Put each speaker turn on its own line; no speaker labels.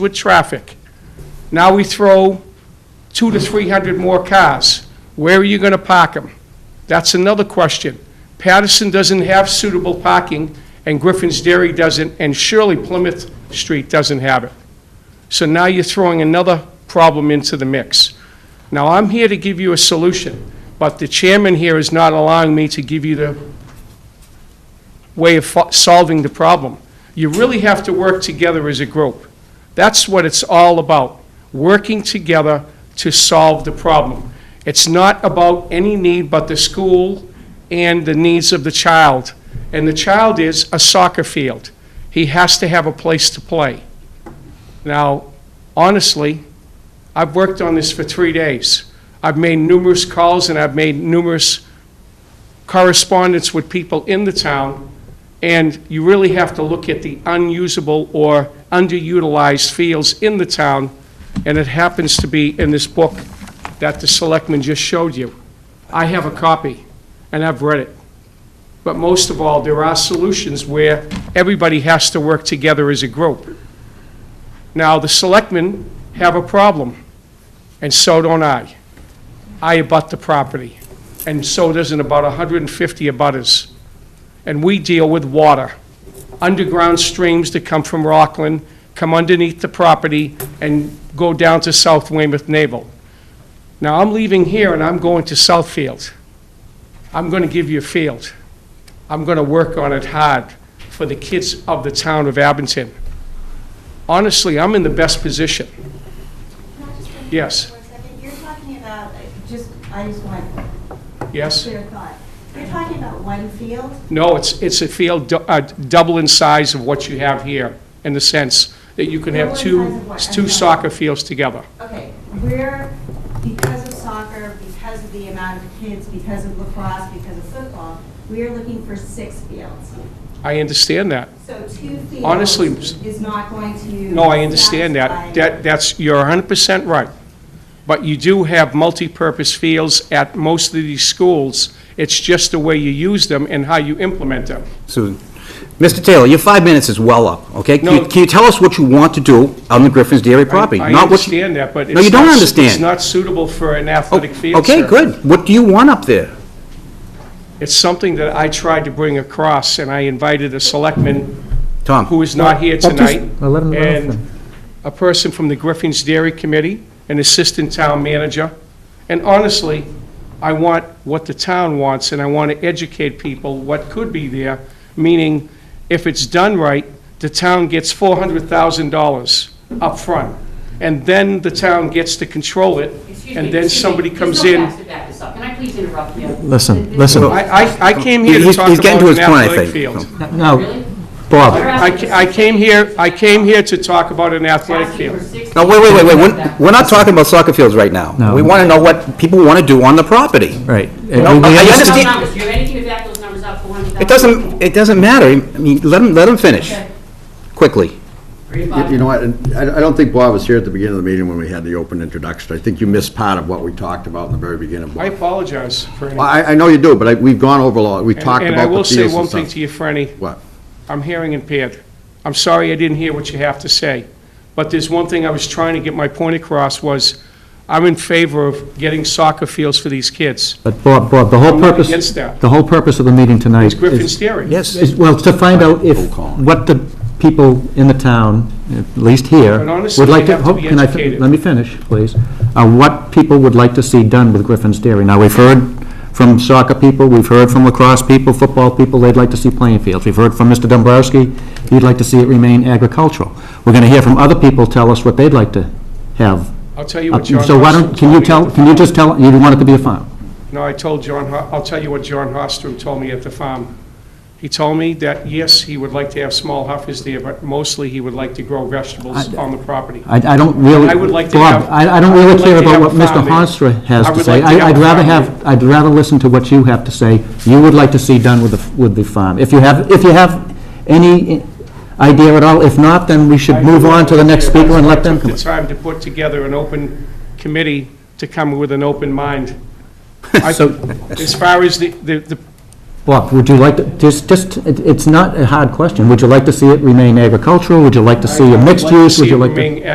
with traffic. Now we throw two to 300 more cars. Where are you going to park them? That's another question. Patterson doesn't have suitable parking, and Griffin's Dairy doesn't, and surely Plymouth Street doesn't have it. So now you're throwing another problem into the mix. Now, I'm here to give you a solution, but the chairman here is not allowing me to give you the way of fo- solving the problem. You really have to work together as a group. That's what it's all about, working together to solve the problem. It's not about any need but the school and the needs of the child. And the child is a soccer field. He has to have a place to play. Now, honestly, I've worked on this for three days. I've made numerous calls and I've made numerous correspondence with people in the town, and you really have to look at the unusable or underutilized fields in the town, and it happens to be in this book that the selectman just showed you. I have a copy, and I've read it. But most of all, there are solutions where everybody has to work together as a group. Now, the selectmen have a problem, and so don't I. I abut the property, and so does in about 150 abutters. And we deal with water. Underground streams that come from Rockland come underneath the property and go down to South Weymouth Naval. Now, I'm leaving here and I'm going to Southfield. I'm going to give you a field. I'm going to work on it hard for the kids of the town of Abington. Honestly, I'm in the best position.
Can I just bring you
Yes.
up for a second? You're talking about, like, just, I just want
Yes?
clear thought. You're talking about one field?
No, it's, it's a field dou- uh, double in size of what you have here, in the sense that you can have
Double in
two,
size of what?
two soccer fields together.
Okay, we're, because of soccer, because of the amount of kids, because of lacrosse, because of football, we are looking for six fields.
I understand that.
So two fields.
Honestly,
Is not going to.
No, I understand that. That, that's, you're 100% right. But you do have multi-purpose fields at most of these schools. It's just the way you use them and how you implement them.
Susan. Mr. Taylor, your five minutes is well up, okay? Can
No.
you- can you tell us what you want to do on the Griffin's Dairy property?
I
not what you-
understand that, but it's.
No, you don't
not-
understand.
It's not suitable for an athletic field,
Okay,
sir.
good. What do you want up there?
It's something that I tried to bring across, and I invited a selectman
Tom?
who is not here
Well, just-
tonight.
well, let him- let him
And a person from the Griffin's Dairy Committee, an assistant town manager. And honestly, I want what the town wants, and I want to educate people what could be there, meaning if it's done right, the town gets $400,000 up front, And then the town gets to control it,
Excuse me,
and then
excuse me,
somebody
there's
comes
no
in.
facts to back this up. Can I please interrupt you?
Listen,
The-
listen.
I, I- I came here to
He's-
talk
he's getting
about
to
an
his point, I
athletic
think.
field.
No,
Really?
Bob,
I ca- I came here, I came here to talk about an athletic
Asking for
field.
six
No, wait, wait, wait, wait. We're-
feet.
We're not talking about soccer fields right now.
No.
We want to know what people want to do on the property.
right.
No,
We- we
I
Those
understand-
understand-
numbers, Do you have anything to back those numbers up for one thousand?
It doesn't, it doesn't matter. I mean, let him, let him finish, quickly.
You know what, and I I don't think Bob was here at the beginning of the meeting when we had the open introduction. I think you missed part of what we talked about in the very beginning.
I
Bob.
apologize for any.
Well, I, I know you do, but I- we've gone over a lot, we talked
And I
about
will
the
say
fields
one
and
thing
stuff.
to you, Franny,
What?
I'm hearing impaired. I'm sorry I didn't hear what you have to say, but there's one thing I was trying to get my point across was, I'm in favor of getting soccer fields for these kids.
But Bob, Bob, the whole
I'm not
purpose,
against that.
the whole purpose of the meeting tonight
It's Griffin's
is,
theory.
Yes.
is, well, to find out if, what the people in the town, at least here,
But honestly,
would like
they
to,
have to
hope-
be
can I, fin-
educated.
let me finish, please, Uh what people would like to see done with Griffin's Dairy. Now, we've heard from soccer people, we've heard from lacrosse people, football people, they'd like to see playing fields. We've heard from Mr. Dombrowski, he'd like to see it remain agricultural. We're gonna hear from other people tell us what they'd like to have.
I'll tell you
Uh,
what John.
So why
Hostel
don't, can
told me
you
at
tell,
the
can you
farm.
just tell, you want it to be a farm?
No, I told John, Ho- I'll tell you what John Hostrom told me at the farm. He told me that, yes, he would like to have small huffers there, but mostly he would like to grow vegetables on the property.
I, I don't really,
I would like to
Bob,
have-
I, I don't
I would
really
like
care
to
about
have
what
a
Mr.
farm there.
Honstra has
I
to
would
say.
like to have
I- I'd
a
rather
farm
have, I'd rather listen to what you have to say. You would like to see done with the, f- with the farm. If you have, if you have any i- idea at all, if not, then we should move on to the next speaker and let them come.
I took the time to put together an open committee to come with an open mind. I-
So-
As far as the, the, the-
Bob, would you like to, just, just, it- it's not a hard question. Would you like to see it remain agricultural? Would you like to see a
I'd
mixed
like to
use?
see
Would you
it
like to?
remain